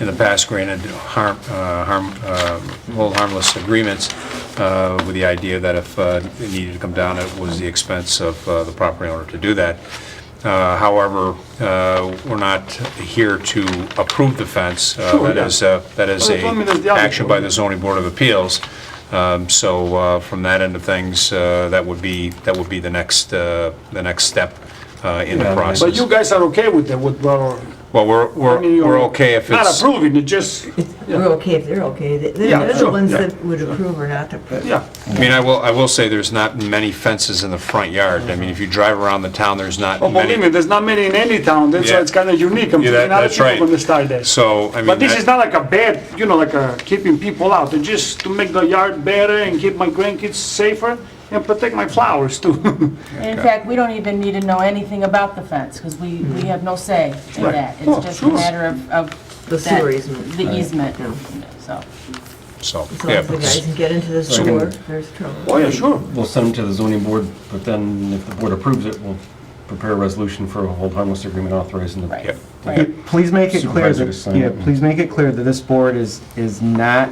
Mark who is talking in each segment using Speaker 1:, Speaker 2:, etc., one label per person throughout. Speaker 1: in the past granted harm, uh, harm, uh, hold harmless agreements uh, with the idea that if uh, it needed to come down, it was the expense of uh, the property owner to do that. Uh, However, uh, we're not here to approve the fence. Uh,
Speaker 2: Sure,
Speaker 1: That
Speaker 2: yeah.
Speaker 1: is, uh, that is
Speaker 2: Well, that's what I mean, that's
Speaker 1: a
Speaker 2: the other
Speaker 1: action
Speaker 2: part.
Speaker 1: by the zoning board of appeals. Um, So uh, from that end of things, uh, that would be, that would be the next, uh, the next step uh, in the
Speaker 2: But
Speaker 1: process.
Speaker 2: you guys are okay with that, with, well,
Speaker 1: Well, we're,
Speaker 2: I mean,
Speaker 1: we're
Speaker 2: you're
Speaker 1: we're okay if
Speaker 2: Not
Speaker 1: it's,
Speaker 2: approving, it just,
Speaker 3: We're okay if they're okay. They-
Speaker 2: Yeah,
Speaker 3: They're
Speaker 2: sure,
Speaker 3: the ones
Speaker 2: yeah.
Speaker 3: that would approve or not approve.
Speaker 2: yeah,
Speaker 1: I mean, I will, I will say there's not many fences in the front yard. I mean, if you drive around the town, there's not
Speaker 2: oh, believe me,
Speaker 1: many.
Speaker 2: there's not many in any town, that's why
Speaker 1: Yeah.
Speaker 2: it's kinda unique, I'm
Speaker 1: Yeah, that-
Speaker 2: thinking other
Speaker 1: that's right.
Speaker 2: people gonna start that.
Speaker 1: So, I mean.
Speaker 2: But this
Speaker 1: that-
Speaker 2: is not like a bad, you know, like a keeping people out, it's just to make the yard better and keep my grandkids safer and protect my flowers too.
Speaker 4: In fact, we don't even need to know anything about the fence, because we, we have no say in
Speaker 2: Mm-hmm. Right.
Speaker 4: that.
Speaker 2: Oh,
Speaker 4: It's just a
Speaker 2: sure.
Speaker 4: matter of, of.
Speaker 3: The
Speaker 4: that-
Speaker 3: sewer easement.
Speaker 4: The easement,
Speaker 3: Yeah.
Speaker 4: so.
Speaker 1: So,
Speaker 3: As long
Speaker 1: yeah.
Speaker 3: as the guys can get into the store, there's trouble.
Speaker 2: Oh, yeah, sure,
Speaker 5: We'll send them to the zoning board, but then if the board approves it, we'll prepare a resolution for a hold harmless agreement authorizing the.
Speaker 4: Right.
Speaker 1: Yep.
Speaker 4: Right.
Speaker 6: Please make it clear
Speaker 5: Supervisor to
Speaker 6: that,
Speaker 5: sign
Speaker 6: yeah,
Speaker 5: it.
Speaker 6: please make it clear that this board is, is not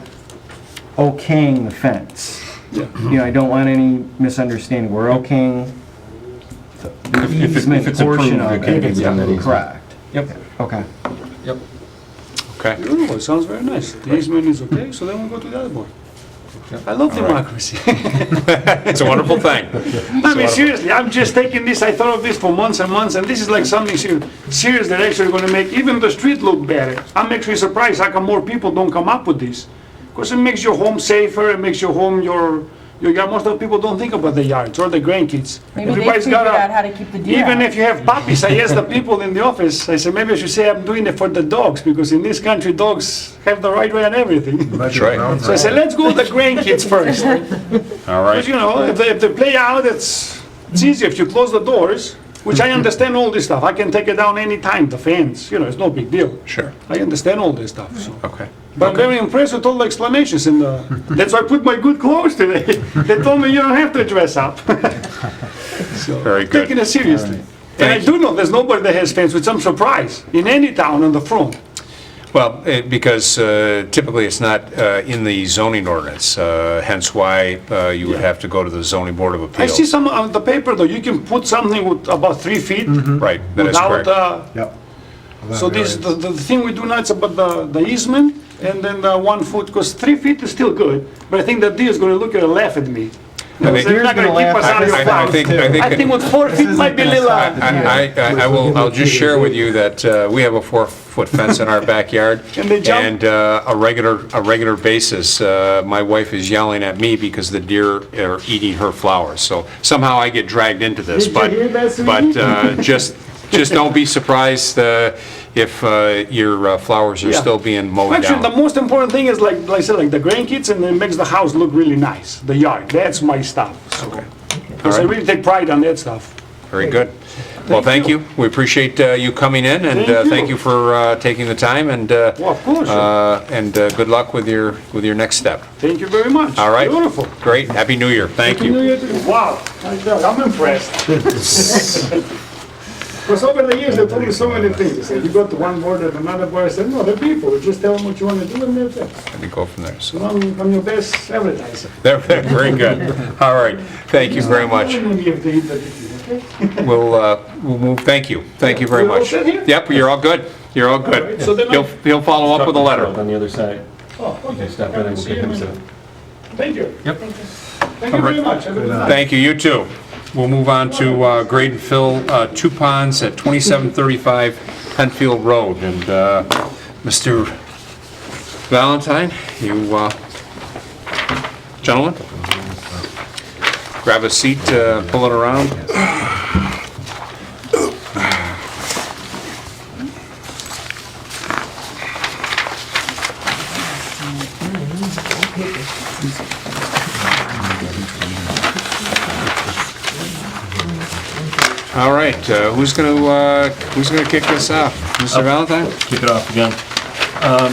Speaker 6: okaying the fence.
Speaker 2: Yeah.
Speaker 6: You know, I don't want any misunderstanding. We're okaying the
Speaker 5: If- if it- if
Speaker 6: easement
Speaker 5: it's
Speaker 6: portion
Speaker 5: approved,
Speaker 6: of
Speaker 5: it can
Speaker 6: it.
Speaker 5: be done that easy.
Speaker 6: Correct.
Speaker 5: Yep,
Speaker 6: Okay.
Speaker 5: yep.
Speaker 1: Okay.
Speaker 2: beautiful, it sounds very nice, the easement is okay, so then we'll go to the other one.
Speaker 5: Yep.
Speaker 2: I love democracy.
Speaker 1: It's a wonderful thing.
Speaker 2: I mean, seriously, I'm just taking this, I thought of this for months and months, and this is like something serious, serious that actually gonna make even the street look better. I'm actually surprised how come more people don't come up with this. Because it makes your home safer, it makes your home your, your yard, most of the people don't think about the yards or the grandkids.
Speaker 4: Maybe they
Speaker 2: Everybody's
Speaker 4: figured
Speaker 2: got a-
Speaker 4: out how to keep the deer
Speaker 2: even
Speaker 4: out.
Speaker 2: if you have puppies, I asked the people in the office, I said, maybe I should say I'm doing it for the dogs, because in this country, dogs have the right way on everything.
Speaker 1: That's right.
Speaker 2: So I said, let's go with the grandkids first.
Speaker 1: All
Speaker 2: But you
Speaker 1: right.
Speaker 2: know, if they, if they play out, it's, it's easy if you close the doors, which
Speaker 1: Mm-hmm.
Speaker 2: I understand all this stuff. I can take it down anytime, the fence, you know, it's no big deal.
Speaker 1: Sure.
Speaker 2: I understand all this stuff, so.
Speaker 1: Okay.
Speaker 2: But I'm very impressed with all the explanations and, uh, that's why I put my good clothes today. They told me you don't have to dress up. So,
Speaker 1: Very good.
Speaker 2: Taking it seriously. And I
Speaker 1: Thank you.
Speaker 2: do know there's nobody that has fence, which I'm surprised, in any town on the front.
Speaker 1: Well, it- because uh, typically it's not uh, in the zoning ordinance, uh, hence why uh, you would have to go to the zoning board of
Speaker 2: I see
Speaker 1: appeals.
Speaker 2: some on the paper though, you can put something with about three feet
Speaker 1: Right, Mm-hmm. that is
Speaker 2: without,
Speaker 1: correct.
Speaker 2: uh,
Speaker 6: Yep.
Speaker 1: Ah,
Speaker 2: So this, the, the thing we do now is about the, the easement and then the one foot, because three feet is still good, but I think that deer is gonna look at and laugh at me.
Speaker 1: I think-
Speaker 2: They're not gonna keep us out of
Speaker 1: I- I
Speaker 2: your flowers.
Speaker 1: think- I think-
Speaker 2: I think with four feet might be a little, uh,
Speaker 1: I, I- I will, I'll just share with you that uh, we have a four-foot fence in our backyard.
Speaker 2: And they jump?
Speaker 1: And uh, a regular, a regular basis, uh, my wife is yelling at me because the deer are eating her flowers. So somehow I get dragged into this,
Speaker 2: Did you
Speaker 1: but,
Speaker 2: hear that,
Speaker 1: but
Speaker 2: sweetie?
Speaker 1: uh, just, just don't be surprised uh, if uh, your uh, flowers are
Speaker 2: Yeah.
Speaker 1: still being mowed
Speaker 2: actually, the
Speaker 1: down.
Speaker 2: most important thing is like, like I said, like the grandkids and it makes the house look really nice, the yard, that's my stuff, so. Because I
Speaker 1: Alright.
Speaker 2: really take pride on that stuff.
Speaker 1: Very good. Well, thank you. We appreciate uh, you coming in, and uh,
Speaker 2: Thank you.
Speaker 1: thank you for uh, taking the time, and, uh,
Speaker 2: Well, of course.
Speaker 1: uh, and uh, good luck with your, with your next step.
Speaker 2: Thank you very much.
Speaker 1: All right.
Speaker 2: Beautiful.
Speaker 1: Great. Happy New Year. Thank you.
Speaker 2: Wow, I'm impressed. Because over the years, they told me so many things, and you go to one board and another board, I said, no, they're people, just tell them what you want to do and they'll do.
Speaker 1: Let me go from there. So,
Speaker 2: So I'm, I'm your best advertiser.
Speaker 1: there- there, very good. All right. Thank you very much.
Speaker 2: I'm gonna give the interview, okay?
Speaker 1: We'll, uh, we'll move, thank you. Thank you very
Speaker 2: We're all
Speaker 1: much.
Speaker 2: set here?
Speaker 1: Yep, you're all good. You're all good.
Speaker 2: right, so then I-
Speaker 1: He'll, he'll follow up with a letter.
Speaker 5: On the other side.
Speaker 2: Oh,
Speaker 5: They stop in and we'll pick things up.
Speaker 2: Thank you.
Speaker 5: Yep.
Speaker 2: Thank you very much. Have a good night.
Speaker 1: Thank you, you too. We'll move on to uh, grade and fill uh, two ponds at 2735 Penfield Road. And uh, Mr. Valentine, you, uh, gentlemen, grab a seat, uh, pull it around. All right, uh, who's going to, who's going to kick this off? Mr. Valentine?
Speaker 5: Kick it off again. Um,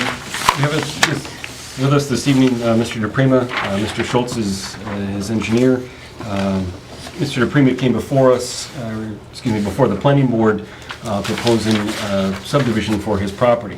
Speaker 5: We have us- this- with us this evening, uh, Mr. DePrima, uh, Mr. Schultz is uh, his engineer. Um, Mr. DePrima came before us, uh, excuse me, before the planning board uh, proposing uh, subdivision for his property.